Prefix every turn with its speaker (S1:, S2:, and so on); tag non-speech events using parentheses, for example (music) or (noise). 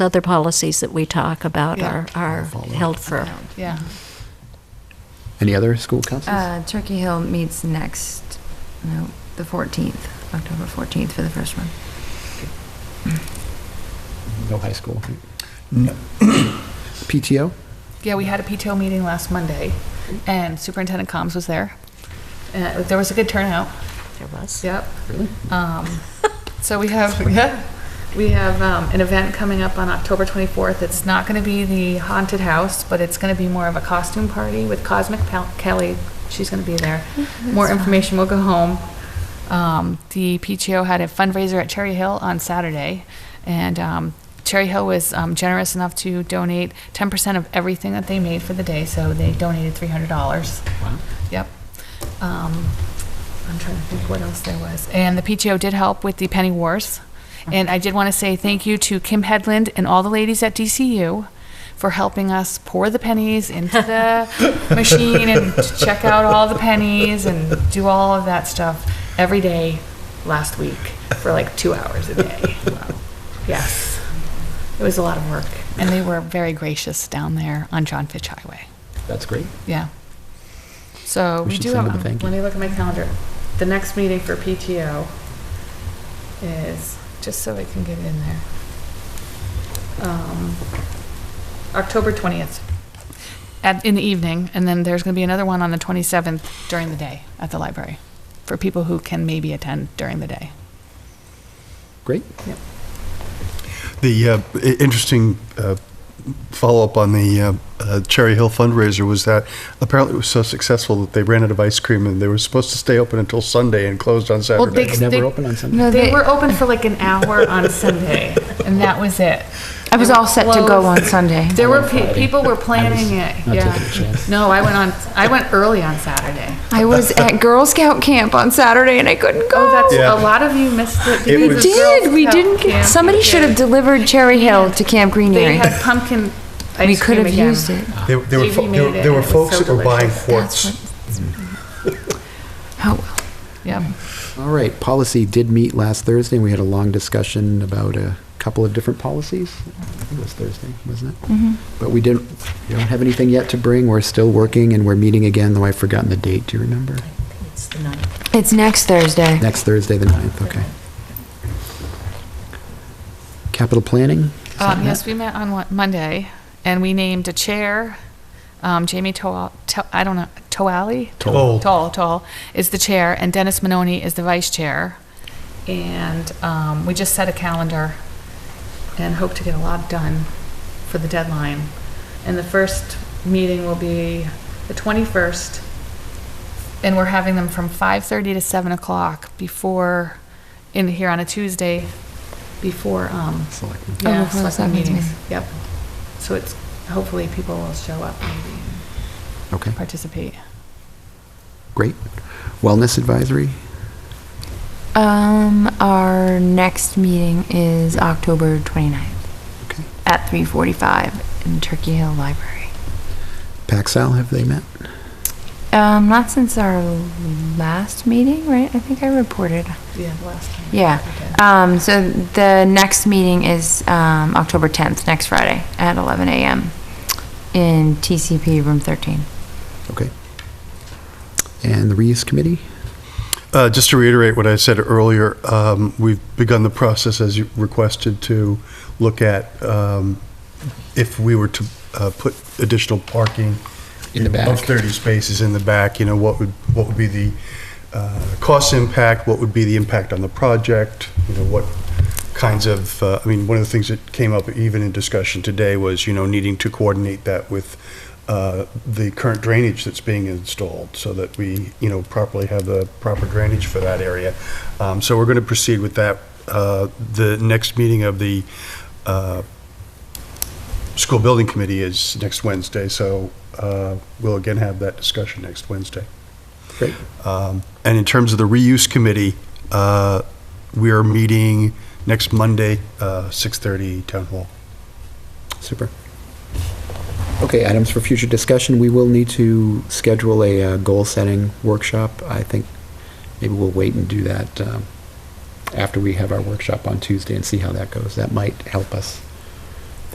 S1: other policies that we talk about
S2: Yeah.
S1: are, are held for.
S2: Yeah.
S3: Any other school councils?
S4: Uh, Turkey Hill meets next, no, the 14th, October 14th for the first one.
S3: No high school. right? (coughs)
S5: No.
S3: PTO?
S2: Yeah, we had a PTO meeting last Monday, and Superintendent Combs was there. Uh, There was a good turnout.
S1: There was.
S2: Yep. Um, So we have, yeah, we have um, an event coming up on October 24th. It's not going to be the haunted house, but it's going to be more of a costume party with Cosmic Pel- Kelly. She's going to be there. More information will go home. Um, The PTO had a fundraiser at Cherry Hill on Saturday, and um, Cherry Hill was um, generous enough to donate 10% of everything that they made for the day, so they donated $300. Wow. Yep. Um, I'm trying to think what else there was. And the PTO did help with the penny wars. And I did want to say thank you to Kim Headland and all the ladies at DCU for helping us pour the pennies into (laughs) the machine and to check out all the pennies and do all of that stuff every day last week for like two hours a day. Wow. Yes. It was a lot of work. And they were very gracious down there on John Fitch Highway.
S3: That's great.
S2: Yeah. So
S3: We
S2: we
S3: should
S2: do
S3: send them
S2: have,
S3: a thank you.
S2: let me look at my calendar. The next meeting for PTO is, just so I can get it in there. Um, October 20th, at, in the evening, and then there's going to be another one on the 27th during the day at the library, for people who can maybe attend during the day.
S3: Great.
S5: The uh, i- interesting uh, follow-up on the uh, uh, Cherry Hill fundraiser was that apparently it was so successful that they ran out of ice cream and they were supposed to stay open until Sunday and closed on
S2: Well,
S5: Saturday.
S2: They-
S3: Never
S2: they-
S3: open on Sunday?
S4: No,
S2: They were open for like an hour on Sunday, and that was it.
S4: I was all set to go on Sunday.
S2: (laughs) There were pe-
S3: Friday.
S2: people were planning
S3: I was
S2: it.
S3: not
S2: yeah.
S3: taking a chance.
S2: No, I went on. I went early on Saturday.
S4: I was at Girl Scout camp on Saturday and I couldn't go.
S2: Oh, that's
S5: Yeah.
S2: a lot of you missed it.
S5: It
S4: We
S2: because
S5: was-
S2: of Girl
S4: did, we
S2: Scout
S4: didn't, get-
S2: camp.
S4: somebody should have delivered Cherry Hill to Camp
S2: They
S4: Greenery.
S2: had pumpkin
S4: We
S2: ice
S4: could
S2: cream
S4: have
S2: again.
S4: used it.
S5: There there were, fo-
S2: TV
S5: there
S2: made it
S5: there were
S2: and it was
S5: folks
S2: so
S5: that were buying
S2: delicious.
S4: That's
S5: quarts.
S2: Mm.
S4: what- Oh, well.
S2: Yep.
S3: All right, policy did meet last Thursday, and we had a long discussion about a couple of different policies. I think it was Thursday, wasn't it? But we didn't, we don't have anything yet to bring, we're still working, and we're meeting again, though I've forgotten the date, do you remember?
S1: It's the ninth.
S4: It's next Thursday.
S3: Next Thursday, the 9th, okay. Capital planning? Is that
S2: Um, yes,
S3: met?
S2: we met on Wa- Monday, and we named a chair. Um, Jamie Toal, to, I don't know, Toali?
S5: Toll.
S2: Toll, Toll is the chair, and Dennis Manoni is the vice chair. And um, we just set a calendar and hope to get a lot done for the deadline. And the first meeting will be the 21st, and we're having them from 5:30 to 7 o'clock before, in here on a Tuesday, before, um,
S3: Selectmen.
S4: Oh,
S2: yeah,
S4: before
S2: selectmen
S4: the selectmen's
S2: meetings,
S4: meeting.
S2: yep. So it's, hopefully people will show up maybe
S3: Okay,
S2: and participate.
S3: great. Wellness advisory?
S4: Um, our next meeting is October 29th
S3: Okay.
S4: at 3:45 in Turkey Hill Library.
S3: Paxal, have they met?
S4: Um, not since our last meeting, right? I think I reported.
S2: Yeah, the last time.
S4: Yeah. Um, so the next meeting is, um, October 10th, next Friday at 11 a.m. in TCP room 13.
S3: Okay. And the reuse committee?
S5: Uh, Just to reiterate what I said earlier, um, we've begun the process, as you requested, to look at um, if we were to uh, put additional parking.
S3: In the back.
S5: Of 30 spaces in the back, you know, what would, what would be the uh, cost impact? What would be the impact on the project? You know, what kinds of, uh, I mean, one of the things that came up even in discussion today was, you know, needing to coordinate that with uh, the current drainage that's being installed so that we, you know, properly have the proper drainage for that area. Um, So we're going to proceed with that. Uh, The next meeting of the uh, school building committee is next Wednesday, so uh, we'll again have that discussion next Wednesday.
S3: Great.
S5: Um, And in terms of the reuse committee, uh, we are meeting next Monday, uh, 6:30 Town Hall.
S3: Super. Okay, items for future discussion. We will need to schedule a uh, goal-setting workshop. I think maybe we'll wait and uh, do that um, after we have our workshop on Tuesday and see how that goes. That might help us